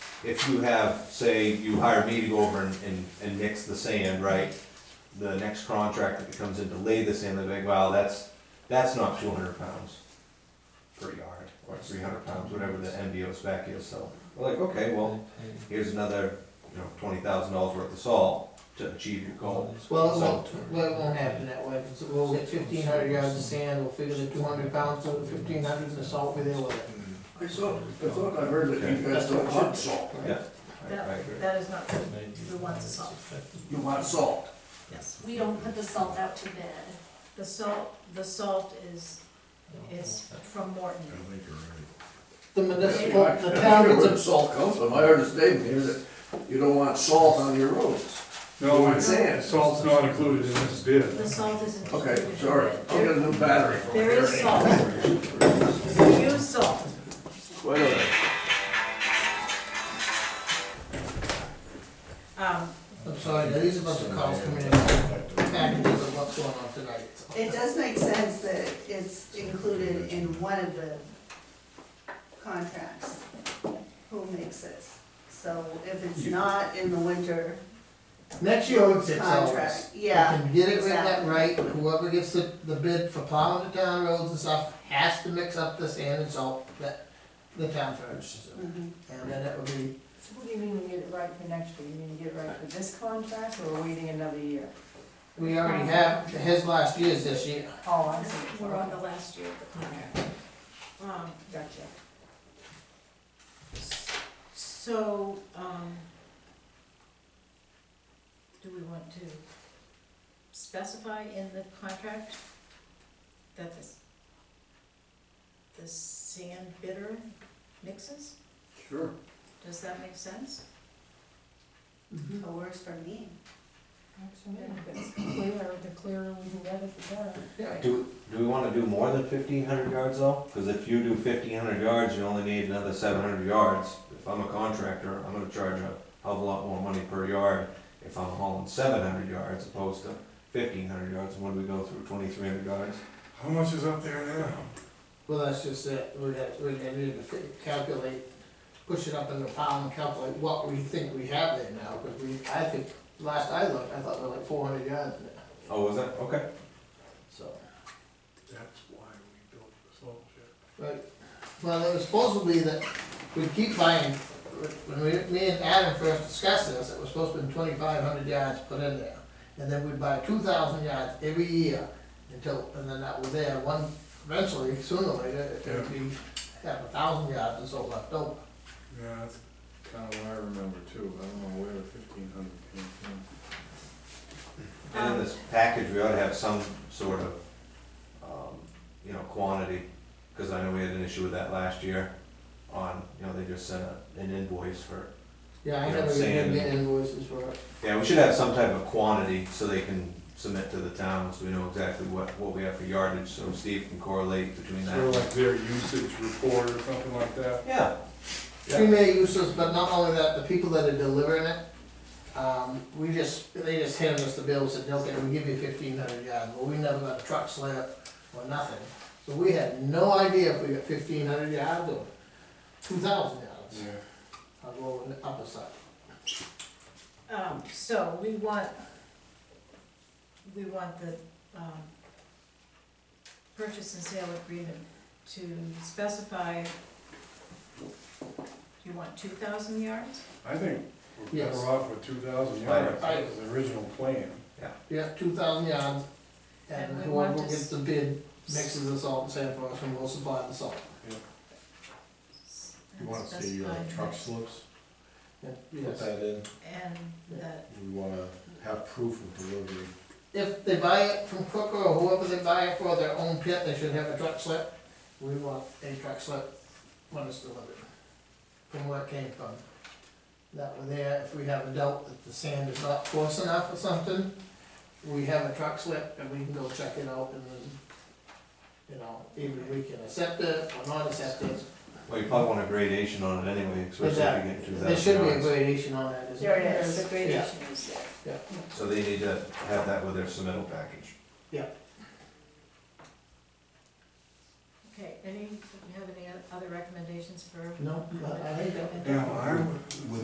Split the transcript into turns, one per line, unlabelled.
if you have, say, you hire me to go over and, and, and mix the sand, right? The next contractor that comes in to lay the sand, they're like, wow, that's, that's not two hundred pounds per yard, or three hundred pounds, whatever the MDO spec is, so. We're like, okay, well, here's another, you know, twenty thousand dollars worth of salt to achieve your goal.
Well,
So-
it won't, well, it won't happen that way, so we'll get fifteen hundred yards of sand, we'll figure the two hundred pounds, so the fifteen hundred is the salt we deal with it.
I saw, I thought I heard that you guys don't want salt.
I- I agree.
That is not good, we want the salt,
You want salt.
yes.
We don't put the salt out to bed.
The salt, the salt is, is from Morton.
The municipal,
I-
the
I
town
wonder
gets
where the
a,
salt comes from. I heard a statement here that you don't want salt on your roads. You
No,
want sand.
salt's not included in this bid.
The salt isn't included.
Okay, sorry. I'll get a new battery. for it.
There is salt. We use salt.
Wait a minute.
Um,
I'm sorry, now these are a bunch of calls coming in, packages of what's going on tonight.
It does make sense that it's included in one of the contracts, who makes it. So if it's not in the winter
Next year, it's six hours.
contract,
We
yeah,
can get it right, that
exactly.
right, whoever gets the, the bid for plowing the town roads and stuff has to mix up the sand and salt that the town furnishes them.
Mhm.
And then it would be,
So what do you mean we get it right for next year? You mean you get it right for this contract or we're waiting another year?
we already have, his last year's this year.
Oh, I see.
we're on the last year of the contract. Um,
Gotcha.
So, um, do we want to specify in the contract that this, the sand bitter mixes?
Sure.
Does that make sense?
Mm-hmm.
It works for me.
It's clear, the clearer we can get it, the better.
Do, do we wanna do more than fifteen hundred yards though? Cause if you do fifteen hundred yards, you only need another seven hundred yards. If I'm a contractor, I'm gonna charge a hell of a lot more money per yard if I'm hauling seven hundred yards opposed to fifteen hundred yards. When we go through twenty-three hundred yards,
How much is up there now?
Well, that's just it, we'd have, we'd have to fi- calculate, push it up in the pound and calculate what we think we have there now, because we, I think, last I looked, I thought we were like four hundred yards now,
oh, is that, okay.
so.
That's why we built the salt shed.
Right, well, it was supposed to be that we'd keep buying, when we, me and Adam first discussed this, it was supposed to be twenty-five hundred yards put in there. And then we'd buy two thousand yards every year until, and then that was there, one, eventually, sooner or later, it would be, have a thousand yards or so left over.
Yeah, that's kinda what I remember too. I don't know where the fifteen hundred came from.
And in this package, we ought to have some sort of, um, you know, quantity, cause I know we had an issue with that last year on, you know, they just sent a- an invoice for
Yeah, I
Yeah,
never even
sand.
get invoices for it.
Yeah, we should have some type of quantity so they can submit to the town, so we know exactly what, what we have for yardage, so Steve can correlate between
Sort of
that.
like their usage report or something like that.
Yeah, Yeah.
We may use this, but not only that, the people that are delivering it, um, we just, they just hand us the bill, said, okay, we give you fifteen hundred yards, but we never got a truck slip or nothing. So we had no idea if we got fifteen hundred yards or two thousand yards,
Yeah.
I'll go on the upper side.
Um, so we want, we want the, um, purchase and sale agreement to specify, you want two thousand yards?
I think we're
Yes.
better off with two thousand
I-
yards.
I-
That was the original plan.
We got two thousand yards, and
And we
whoever
want to
gets the bid mixes the salt and sand for us, and we'll supply the salt.
You wanna see uh,
Specify
truck slips,
Yeah,
put
Yes,
that in,
And that,
we wanna have proof of delivery.
if they buy it from Crooker or whoever they buy it for, their own pit, they should have a truck slip. We want a truck slip when it's delivered, from where it came from. That way there, if we have a doubt that the sand is not coarse enough or something, we have a truck slip and we can go check it out and then, you know, either we can accept it or not accept it.
well, you probably want a gradation on it anyway, especially if you get two
There should
thousand
be a
yards.
gradation on that, isn't
there
there?
it is, the
Yeah.
gradation is there.
So they need to have that with their submittal package.
Okay, any, do you have any other recommendations for?
No, I- I think that-
Now, I,